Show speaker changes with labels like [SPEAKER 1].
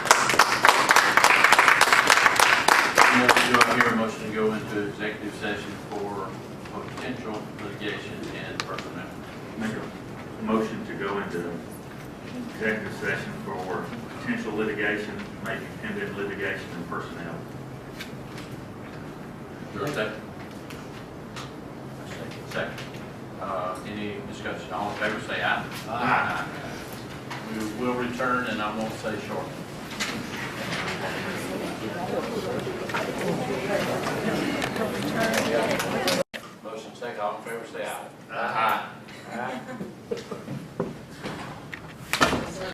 [SPEAKER 1] and go into executive session for potential litigation and personnel.
[SPEAKER 2] Make a motion to go into executive session for potential litigation, maybe pending litigation and personnel.
[SPEAKER 1] Is there a second? Second. Uh, Any discussion? All in favor, say aye.
[SPEAKER 2] Aye.
[SPEAKER 1] We will return, and I won't say short.
[SPEAKER 3] Thank you.